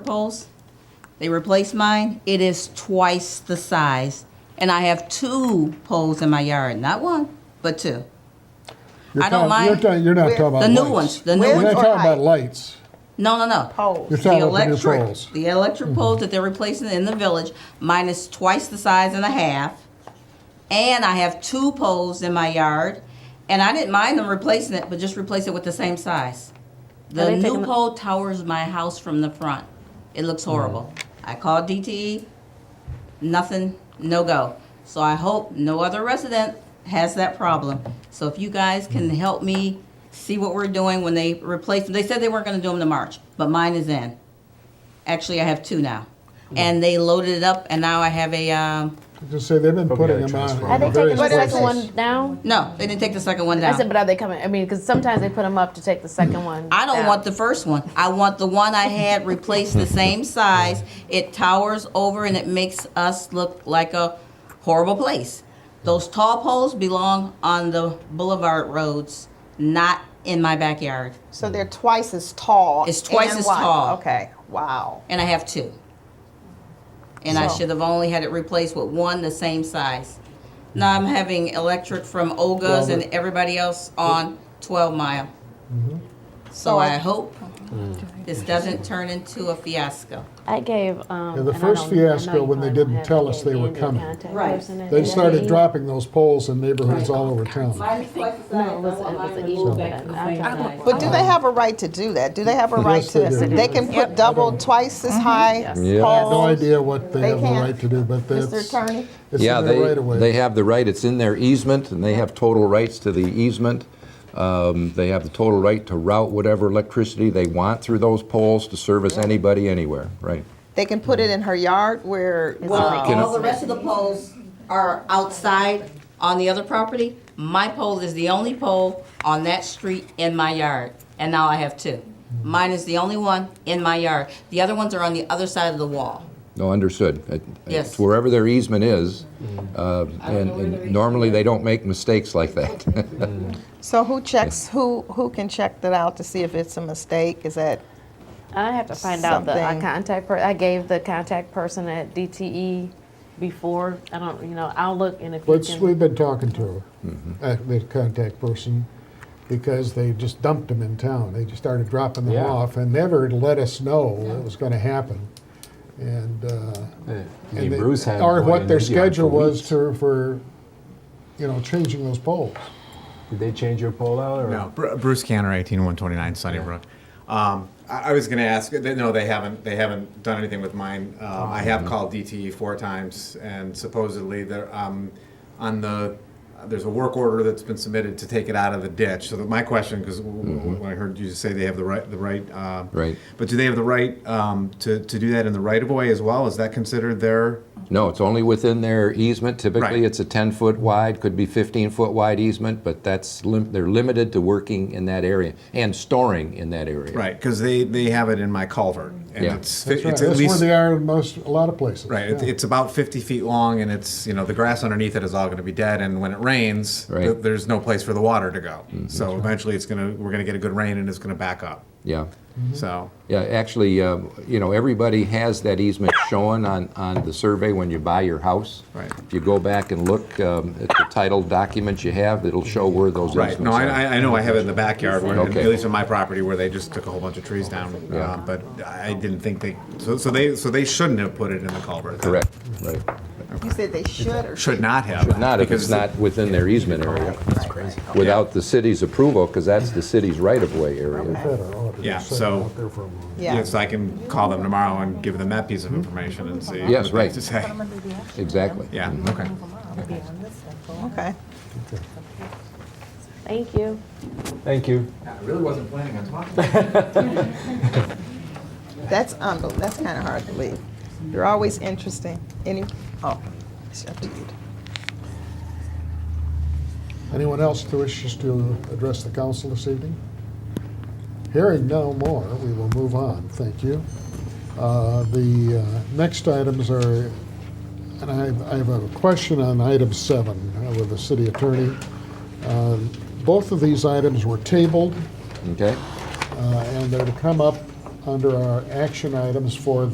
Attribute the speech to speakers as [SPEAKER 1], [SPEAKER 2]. [SPEAKER 1] poles. They replaced mine. It is twice the size. And I have two poles in my yard, not one, but two.
[SPEAKER 2] You're
[SPEAKER 1] I don't
[SPEAKER 2] talking-
[SPEAKER 1] mind-
[SPEAKER 2] You're, ta- you're not
[SPEAKER 3] Where-
[SPEAKER 2] talking about
[SPEAKER 1] The new
[SPEAKER 2] lights.
[SPEAKER 1] ones, the
[SPEAKER 3] Where-
[SPEAKER 1] new
[SPEAKER 2] You're not
[SPEAKER 1] ones.
[SPEAKER 3] Where-
[SPEAKER 2] talking about
[SPEAKER 3] Right.
[SPEAKER 2] lights.
[SPEAKER 1] No, no, no.
[SPEAKER 3] Poles.
[SPEAKER 2] You're
[SPEAKER 1] The
[SPEAKER 2] talking about the new
[SPEAKER 1] electric,
[SPEAKER 2] poles.
[SPEAKER 1] the electric poles that they're replacing in the village, mine is twice the size and a half. And I have two poles in my yard, and I didn't mind them replacing it, but just replace it with the same size.
[SPEAKER 4] Are
[SPEAKER 1] The
[SPEAKER 4] they
[SPEAKER 1] new
[SPEAKER 4] taking- Mm-hmm.
[SPEAKER 1] pole towers my house from the front. It looks horrible. I called DTE, nothing, no go. So I hope no other resident has that problem. So if you guys can
[SPEAKER 4] Mm-hmm.
[SPEAKER 1] help me see what we're doing when they replace them, they said they weren't gonna do them to March, but mine is in. Actually, I have two now. And they loaded it up and now I have a, um,
[SPEAKER 2] Just say they've been
[SPEAKER 5] But we
[SPEAKER 2] putting
[SPEAKER 5] gotta
[SPEAKER 2] them on.
[SPEAKER 5] transfer
[SPEAKER 4] Are they
[SPEAKER 2] in various
[SPEAKER 4] taking the
[SPEAKER 3] What is
[SPEAKER 2] places.
[SPEAKER 4] second one down?
[SPEAKER 1] no, they didn't take the second one
[SPEAKER 4] I said,
[SPEAKER 1] down.
[SPEAKER 4] but are they coming? I mean, because sometimes they put them up to take the second one.
[SPEAKER 1] I don't
[SPEAKER 4] down.
[SPEAKER 1] want the first one. I want the one I had replaced the same size. It towers over and it makes us look like a horrible place. Those tall poles belong on the boulevard roads, not in my backyard.
[SPEAKER 3] So they're twice as tall.
[SPEAKER 1] It's twice
[SPEAKER 3] and
[SPEAKER 1] as
[SPEAKER 3] wide.
[SPEAKER 1] tall.
[SPEAKER 3] Okay. Wow.
[SPEAKER 1] And I have two. And I
[SPEAKER 3] So-
[SPEAKER 1] should have only had it replaced with one the same size. Now I'm having electric from Olga's and everybody else on 12 Mile.
[SPEAKER 4] Mm-hmm.
[SPEAKER 1] So
[SPEAKER 3] So I-
[SPEAKER 1] I hope this doesn't turn into a fiasco.
[SPEAKER 4] I gave.
[SPEAKER 2] Yeah,
[SPEAKER 4] Um,
[SPEAKER 2] the
[SPEAKER 4] and I
[SPEAKER 2] first
[SPEAKER 4] don't- I know you
[SPEAKER 2] fiasco when they
[SPEAKER 4] probably don't
[SPEAKER 2] didn't
[SPEAKER 4] have
[SPEAKER 2] tell
[SPEAKER 4] it,
[SPEAKER 2] us
[SPEAKER 4] I
[SPEAKER 2] they
[SPEAKER 4] gave
[SPEAKER 2] were
[SPEAKER 4] Andy a
[SPEAKER 2] coming.
[SPEAKER 4] contact
[SPEAKER 1] Right.
[SPEAKER 4] person and
[SPEAKER 2] They
[SPEAKER 4] he-
[SPEAKER 2] started dropping those poles in neighborhoods all over town.
[SPEAKER 1] Mine is twice the
[SPEAKER 4] No, it was, it was an email. that I got.
[SPEAKER 3] But do
[SPEAKER 1] Uh-huh.
[SPEAKER 3] they have a right to do that? Do they have a right
[SPEAKER 2] Yes,
[SPEAKER 3] to?
[SPEAKER 2] they do.
[SPEAKER 3] They can put double, twice
[SPEAKER 1] Mm-hmm.
[SPEAKER 3] as high
[SPEAKER 6] Yeah.
[SPEAKER 2] I have no
[SPEAKER 3] poles.
[SPEAKER 2] idea what they
[SPEAKER 3] They
[SPEAKER 2] have the
[SPEAKER 3] can't.
[SPEAKER 2] right to do, but that's,
[SPEAKER 3] Mr.
[SPEAKER 2] it's
[SPEAKER 3] Attorney.
[SPEAKER 6] Yeah,
[SPEAKER 2] in
[SPEAKER 6] they,
[SPEAKER 2] their right of way.
[SPEAKER 6] they have the right, it's in their easement, and they have total rights to the easement. Um, They have the total right to route whatever electricity they want through those poles to service anybody, anywhere, right?
[SPEAKER 3] They can put it in her yard where.
[SPEAKER 4] Wow.
[SPEAKER 1] Well, all the rest of the poles are outside on the other property. My pole is the only pole on that street in my yard, and now I have two. Mine is the only one in my yard. The other ones are on the other side of the wall.
[SPEAKER 6] No, understood. It-
[SPEAKER 1] Yes.
[SPEAKER 6] It's wherever their easement is,
[SPEAKER 7] Mm.
[SPEAKER 6] uh, and and normally they don't make mistakes like that.
[SPEAKER 3] So who checks? Who who can check that out to see if it's a mistake? Is that?
[SPEAKER 4] I have to find out the uh,
[SPEAKER 3] Something.
[SPEAKER 4] contact per, I gave the contact person at DTE before. I don't, you know, I'll look and if you
[SPEAKER 2] Let's,
[SPEAKER 4] can.
[SPEAKER 2] we've been talking to her,
[SPEAKER 6] Mm-hmm.
[SPEAKER 2] uh, the contact person, because they just dumped them in town. They just started dropping them
[SPEAKER 5] Yeah.
[SPEAKER 2] off and never let us know it was going to happen. And, uh,
[SPEAKER 5] Yeah.
[SPEAKER 2] and they-
[SPEAKER 5] Bruce had
[SPEAKER 2] or
[SPEAKER 5] one
[SPEAKER 2] what
[SPEAKER 5] in
[SPEAKER 2] their
[SPEAKER 5] his yard for
[SPEAKER 2] schedule was
[SPEAKER 5] weeks.
[SPEAKER 2] to, for, you know, changing those poles.
[SPEAKER 5] Did they change your poll out or?
[SPEAKER 7] No, Bru- Bruce Canner, eighteen one twenty nine Sunnybrook. Um, I, I was going to ask. th- No, they haven't. They haven't done anything with mine. Um, I have called DTE four times, and supposedly they're um, on the. There's a work order that's been submitted to take it out of the ditch. So that my question, because when I heard you say they have the right, the Mm-hmm. right, uh,
[SPEAKER 6] Right.
[SPEAKER 7] But do they have the right um, to to do that in the right of way as well? Is that considered their?
[SPEAKER 6] No, it's only within their easement. Typically,
[SPEAKER 7] Right.
[SPEAKER 6] it's a 10-foot wide, could be 15-foot wide easement, but that's, lim- they're limited to working in that area and storing in that area.
[SPEAKER 7] Right, because they, they have it in my culvert, and
[SPEAKER 6] Yeah.
[SPEAKER 7] it's
[SPEAKER 2] That's right.
[SPEAKER 7] it's at
[SPEAKER 2] That's where
[SPEAKER 7] least
[SPEAKER 2] they are in most, a lot of places.
[SPEAKER 7] Right. It's,
[SPEAKER 2] yeah.
[SPEAKER 7] it's about 50 feet long, and it's, you know, the grass underneath it is all going to be dead. And when it rains,
[SPEAKER 6] Right. Mm-hmm.
[SPEAKER 7] th- there's no place for the water to go. So eventually it's going to, we're going to get a good rain and it's going to back up.
[SPEAKER 6] Yeah.
[SPEAKER 7] So,
[SPEAKER 6] Yeah, actually, uh, you know, everybody has that easement shown on, on the survey when you buy your house.
[SPEAKER 7] Right.
[SPEAKER 6] If you go back and look um, at the title documents you have, it'll show where those
[SPEAKER 7] right.
[SPEAKER 6] easements are.
[SPEAKER 7] No, I, I- I know I have it in the backyard, where,
[SPEAKER 6] Okay.
[SPEAKER 7] at least in my property, where they just took a whole bunch of trees down.
[SPEAKER 6] Yeah.
[SPEAKER 7] Um, but I didn't think they, so, so they so they shouldn't have put it in the culvert. then.
[SPEAKER 6] Correct, right.
[SPEAKER 3] You said they should or
[SPEAKER 7] Should not have.
[SPEAKER 6] Not if
[SPEAKER 7] because
[SPEAKER 6] it's not within their easement area. That's crazy. Without the city's approval, because that's the city's right-of-way area.
[SPEAKER 2] Had our auditor
[SPEAKER 7] Yeah,
[SPEAKER 2] sit
[SPEAKER 7] so-
[SPEAKER 2] out there for a moment.
[SPEAKER 3] Yeah.
[SPEAKER 7] Yes, I can call them tomorrow and give them that piece of information and see.
[SPEAKER 6] Yes,
[SPEAKER 7] what they
[SPEAKER 6] right.
[SPEAKER 7] to say.
[SPEAKER 6] Exactly.
[SPEAKER 7] Yeah, okay.
[SPEAKER 3] Okay.
[SPEAKER 4] Thank you.
[SPEAKER 5] Thank you.
[SPEAKER 3] That's unbel- That's kind of hard to believe. You're always interesting. Any? Oh, it's up to you.
[SPEAKER 2] Anyone else who wishes to address the council this evening? Hearing no more, we will move on. Thank you. Uh, The uh, next items are, and I have- I have a question on item seven uh, with the city attorney. Uh, Both of these items were tabled,
[SPEAKER 6] Okay?
[SPEAKER 2] uh, and they're to come up under our action items for